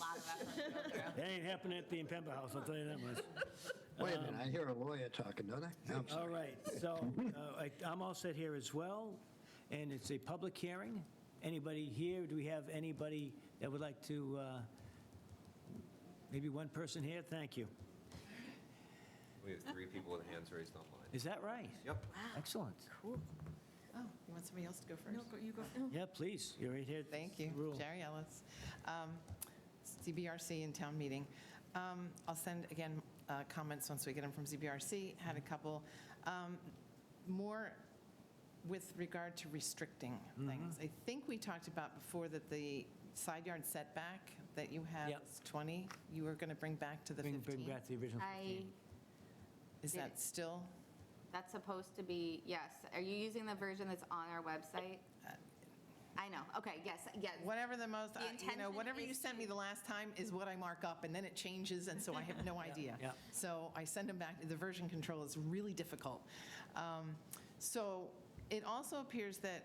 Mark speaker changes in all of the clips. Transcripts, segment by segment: Speaker 1: That ain't happening at the Impemba House, I'll tell you that much.
Speaker 2: Wait a minute, I hear a lawyer talking, don't I? I'm
Speaker 1: All
Speaker 2: sorry.
Speaker 1: right, so uh, I- I'm all set here as well, and it's a public hearing. Anybody here, do we have anybody that would like to, uh, maybe one person here? Thank you.
Speaker 3: We have three people with hands raised online.
Speaker 1: Is that right?
Speaker 3: Yep.
Speaker 4: Ah.
Speaker 1: Excellent.
Speaker 4: Oh, you want somebody else to go first?
Speaker 5: No, go- you go.
Speaker 1: Yeah, please, you're right here.
Speaker 4: Thank you.
Speaker 1: Rule.
Speaker 4: Jerry Ellis, um, CBRC in town meeting. Um, I'll send, again, uh, comments once we get them from CBRC. Had a couple. Um, More with regard to restricting
Speaker 1: Mm-hmm.
Speaker 4: things. I think we talked about before that the side yard setback that you have
Speaker 1: Yep.
Speaker 4: is 20, you were going to bring back to the
Speaker 1: Bring bring
Speaker 4: 15.
Speaker 1: back the original.
Speaker 5: I,
Speaker 4: Is that still?
Speaker 5: that's supposed to be, yes. Are you using the version that's on our website? I know, okay, yes, yes.
Speaker 4: Whatever the most,
Speaker 5: The
Speaker 4: I- you know,
Speaker 5: intention
Speaker 4: whatever you
Speaker 5: is
Speaker 4: sent me the last time is what I mark up, and then it changes, and so I have no idea.
Speaker 1: yeah.
Speaker 4: So I send them back, the version control is really difficult. Um, So it also appears that,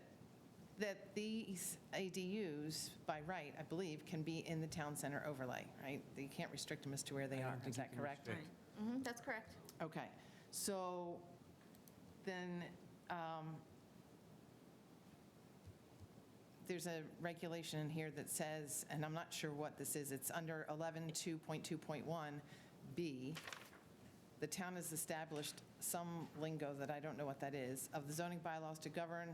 Speaker 4: that these ADUs, by right, I believe, can be in the town center overlay, right? You can't restrict them as to where they are, is that correct?
Speaker 5: Mhm, That's correct.
Speaker 4: Okay, so then um, there's a regulation in here that says, and I'm not sure what this is, it's under 11.2.2.1B, the town has established some lingo that I don't know what that is, of the zoning bylaws to govern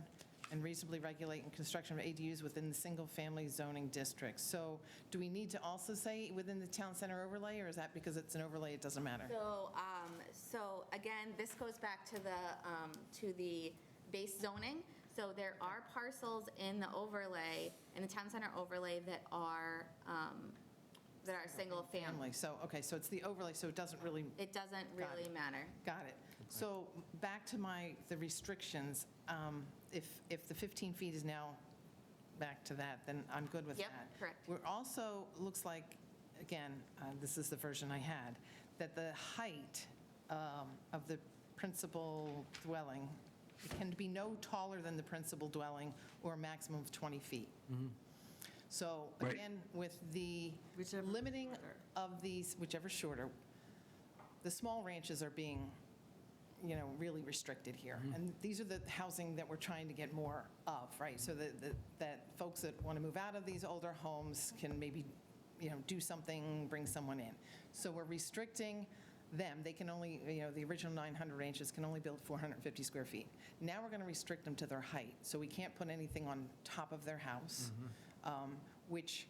Speaker 4: and reasonably regulate in construction of ADUs within the single-family zoning district. So do we need to also say within the town center overlay, or is that because it's an overlay, it doesn't matter?
Speaker 5: So, um, so again, this goes back to the, um, to the base zoning. So there are parcels in the overlay, in the town center overlay that are, um, that are single family.
Speaker 4: Family, so, okay, so it's the overlay, so it doesn't really,
Speaker 5: It doesn't really matter.
Speaker 4: got it. So back to my, the restrictions, um, if, if the 15 feet is now back to that, then I'm good with that.
Speaker 5: Yep, correct.
Speaker 4: We're also, looks like, again, uh, this is the version I had, that the height um, of the principal dwelling can be no taller than the principal dwelling or a maximum of 20 feet. So
Speaker 2: Right.
Speaker 4: again, with the
Speaker 5: Whichever is
Speaker 4: limiting
Speaker 5: shorter.
Speaker 4: of these, whichever shorter, the small ranches are being, you know, really restricted here. And these are the housing that we're trying to get more of, right? So that, that- that folks that want to move out of these older homes can maybe, you know, do something, bring someone in. So we're restricting them. They can only, you know, the original 900 ranches can only build 450 square feet. Now we're going to restrict them to their height. So we can't put anything on top of their house, um, which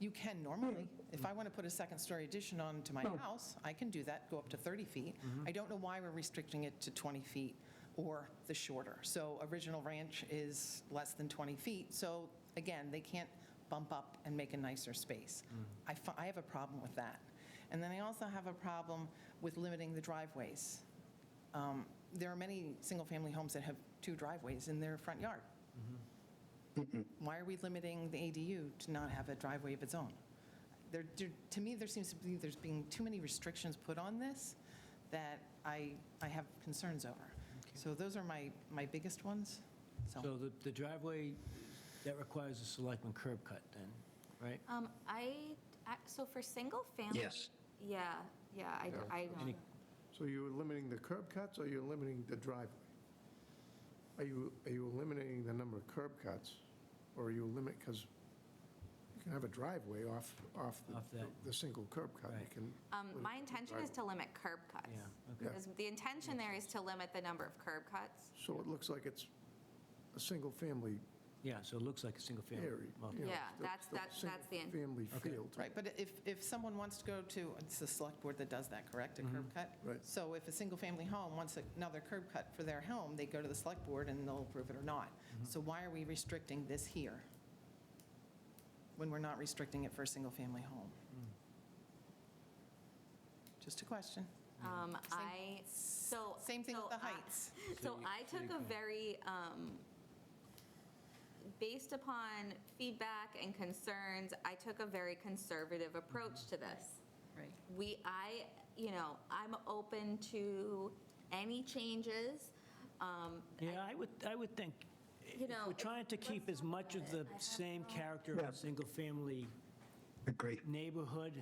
Speaker 4: you can normally. If I want to put a second-story addition on to my house, I can do that, go up to 30 feet. I don't know why we're restricting it to 20 feet or the shorter. So original ranch is less than 20 feet, so again, they can't bump up and make a nicer space. I fi- I have a problem with that. And then I also have a problem with limiting the driveways. Um, There are many single-family homes that have two driveways in their front yard why are we limiting the ADU to not have a driveway of its own? There, there- to me, there seems to be, there's being too many restrictions put on this that I, I have concerns over. So those are my, my biggest ones,
Speaker 1: So the the driveway, that requires a selectman curb cut then, right?
Speaker 5: Um, I, I- so for single family?
Speaker 2: Yes.
Speaker 5: Yeah, yeah, I, I don't.
Speaker 1: Any-
Speaker 6: So you're limiting the curb cuts, or you're limiting the driveway? Are you, are you eliminating the number of curb cuts, or are you limit, because you can have a driveway off, off the-
Speaker 1: Off that.
Speaker 6: the single curb cut. You
Speaker 1: Right.
Speaker 6: can-
Speaker 5: Um, my intention is to limit curb cuts.
Speaker 1: Yeah,
Speaker 6: okay.
Speaker 5: Because The intention there is to limit the number of curb cuts.
Speaker 6: So it looks like it's a single-family
Speaker 1: Yeah, so it looks like a single family.
Speaker 6: area. you know,
Speaker 5: Yeah,
Speaker 6: it's
Speaker 5: that's-
Speaker 6: still a
Speaker 5: that's- that's the in-
Speaker 6: Single-family
Speaker 1: Okay.
Speaker 6: field.
Speaker 4: Right, but if, if someone wants to go to, it's the select board that does that, correct, a curb cut?
Speaker 6: Right.
Speaker 4: So if a single-family home wants another curb cut for their home, they go to the select board and they'll approve it or not. So why are we restricting this here? When we're not restricting it for a single-family home? Just a question.
Speaker 5: Um, I, so.
Speaker 4: Same thing with
Speaker 5: so
Speaker 4: the
Speaker 5: I-
Speaker 4: heights.
Speaker 5: So I took a very, um, based upon feedback and concerns, I took a very conservative approach to this.
Speaker 4: Right.
Speaker 5: We, I, you know, I'm open to any changes. Um,
Speaker 1: Yeah, I would, I would think,
Speaker 5: You
Speaker 1: if
Speaker 5: know,
Speaker 1: we're
Speaker 5: if-
Speaker 1: trying to keep as much of the same character of
Speaker 2: Yeah.
Speaker 1: a single-family
Speaker 2: Agree.
Speaker 1: neighborhood